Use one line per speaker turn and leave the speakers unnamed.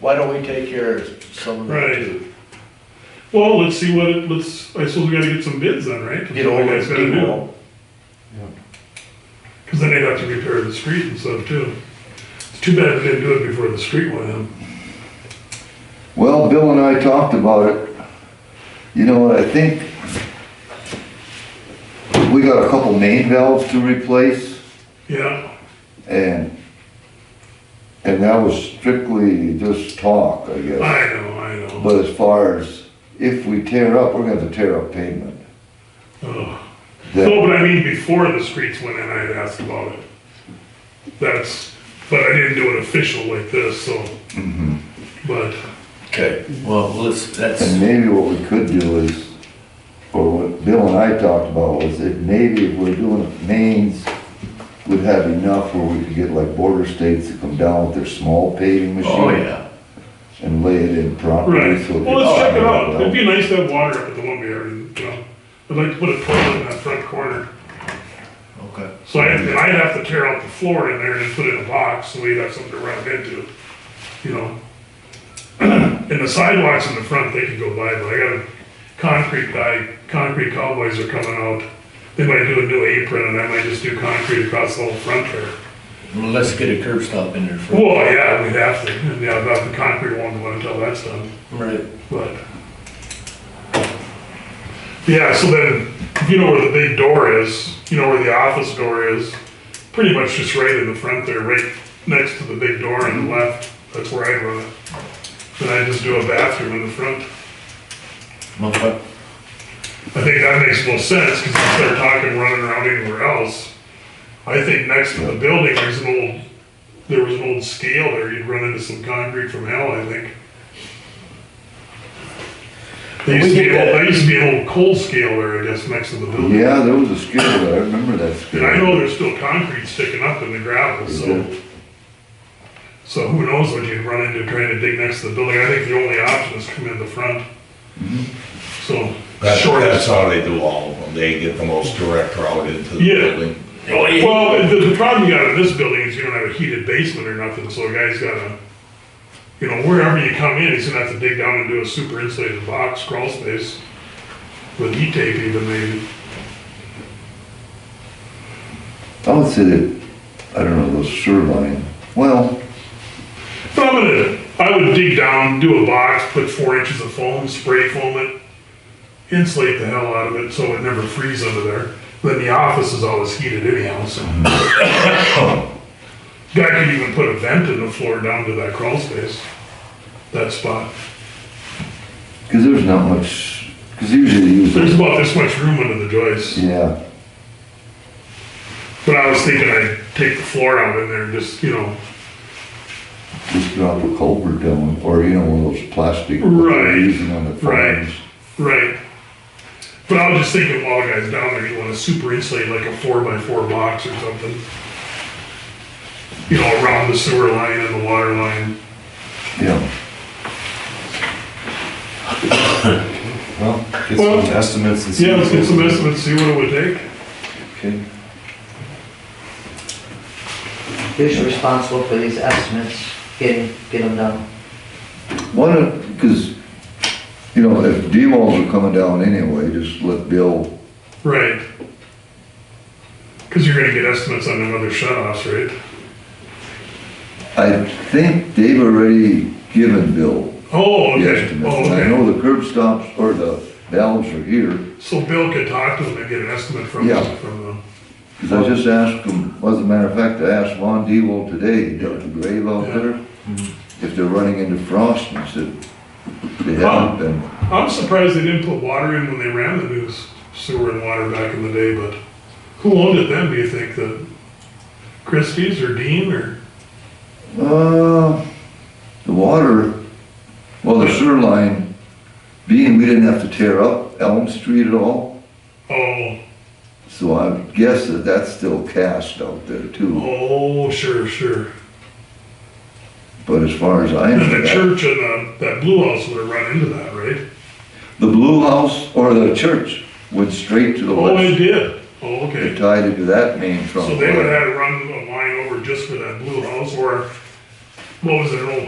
why don't we take care of some of them
Right.
too?
Well, let's see what it, let's, I suppose we gotta get some bids then, right?
Get all those
That's what we guys gotta do.
people.
Cause then they'd have to repair the street and stuff too. It's too bad they didn't do it before the street went in.
Well, Bill and I talked about it. You know what, I think we got a couple main valves to replace
Yeah,
and, and that was strictly just talk, I
I
guess.
know, I know.
But as far as if we tear up, we're gonna have to tear up pavement.
Ugh.
That-
No, but I mean, before the streets went in, I had asked about it. That's, but I didn't do it official like this, so.
Mm-hmm.
But,
Okay, well, let's,
And
that's,
maybe what we could do is, or what Bill and I talked about was that maybe if we're doing mains, we'd have enough where we could get like border states to come down with their small paving machine.
oh, yeah.
and lay it in properly.
right,
so
well, let's check it out. It'd
that-
be nice to have water up at the one we already, you know. I'd like to put a toilet in that front corner.
Okay.
So I'd, I'd have to tear out the floor in there and put it in a box, so we'd have something to run into, you know? And the sidewalks in the front, they could go by, but I got a concrete guy, concrete cowboys are coming out. They might do a new apron, and I might just do concrete across the whole front there.
Well, let's get a curb stop in there first.
Well, yeah, we'd have to, and yeah, about the concrete one, one until that's done,
Right.
but. Yeah, so then, if you know where the big door is, you know where the office door is, pretty much just right in the front there, right next to the big door on the left, that's where I'd run it. Then I just do a bathroom in the front.
Okay.
I think that makes the most sense, because instead of talking running around anywhere else, I think next to the building, there's an old, there was an old scale there, you'd run into some concrete from hell, I think. There used to be, an old- there used to be an old coal scale there, I guess, next to the building.
Yeah, there was a skid, there, I remember that skid.
And I know there's still concrete sticking up in the gravel, so. So who knows what you'd run into trying to dig next to the building, I think the only option is come in the front. So,
That's,
short
that's how they do all of them. They get the most direct route into the
Yeah.
building.
Well, the, the problem you got in this building is you don't have a heated basement or nothing, so a guy's gotta, you know, wherever you come in, he's gonna have to dig down and do a super insulated box, crawl space, with heat tape even maybe.
I would say that, I don't know, those shoreline, well,
But I'm gonna, I would dig down, do a box, put four inches of foam, spray foam it, insulate the hell out of it so it never freezes under there. Then the office is always heated anyhow, so. Guy could even put a vent in the floor down to that crawl space, that spot.
because there's not much, because usually you
There's
use,
about this much room under the joists,
yeah,
but I was thinking I'd take the floor out in there and just, you know,
just drop a culvert down, or, you know, one of those plastic. that
Right,
they're Using on the
right.
farms.
right. But I was just thinking while the guy's down there, you wanna super insulate like a four by four box or something. You know, around the sewer line and the water line.
Yeah,
Well, get
Well,
some estimates and see.
Yeah, let's
what
get some
goes-
estimates, see what it would take.
Okay.
Who's responsible for these estimates, getting, get them done?
one of, because, you know, if D-walls are coming down anyway, just let Bill,
Right. Cause you're gonna get estimates on them other shut-offs, right?
I think they've already given Bill
Oh,
the
okay,
estimate.
oh,
And I
okay.
know the curb stops or the valves are here,
So Bill could talk to them and get an estimate from,
Yeah.
from them.
because I just asked him, well, as a matter of fact, I asked Von Dewalt today, he dug the grave out there,
Mm-hmm.
if they're running into frost, and he said, they haven't been.
I'm surprised they didn't put water in when they ran the new s- sewer and water back in the day, but who owned it then, do you think? The Christie's or Dean or?
Uh, the water, well, the sewer line, being we didn't have to tear up Elm Street at all,
Oh,
so I guess that that's still cast out there too.
oh, sure, sure.
But as far as I
And the
know,
church and uh, that blue house would have run into that, right?
the blue house or the church went straight to the
Oh, it
west.
did. Oh,
They
okay.
tied into that main trunk.
So they would
line.
have had to run a line over just for that blue house or what was it, an old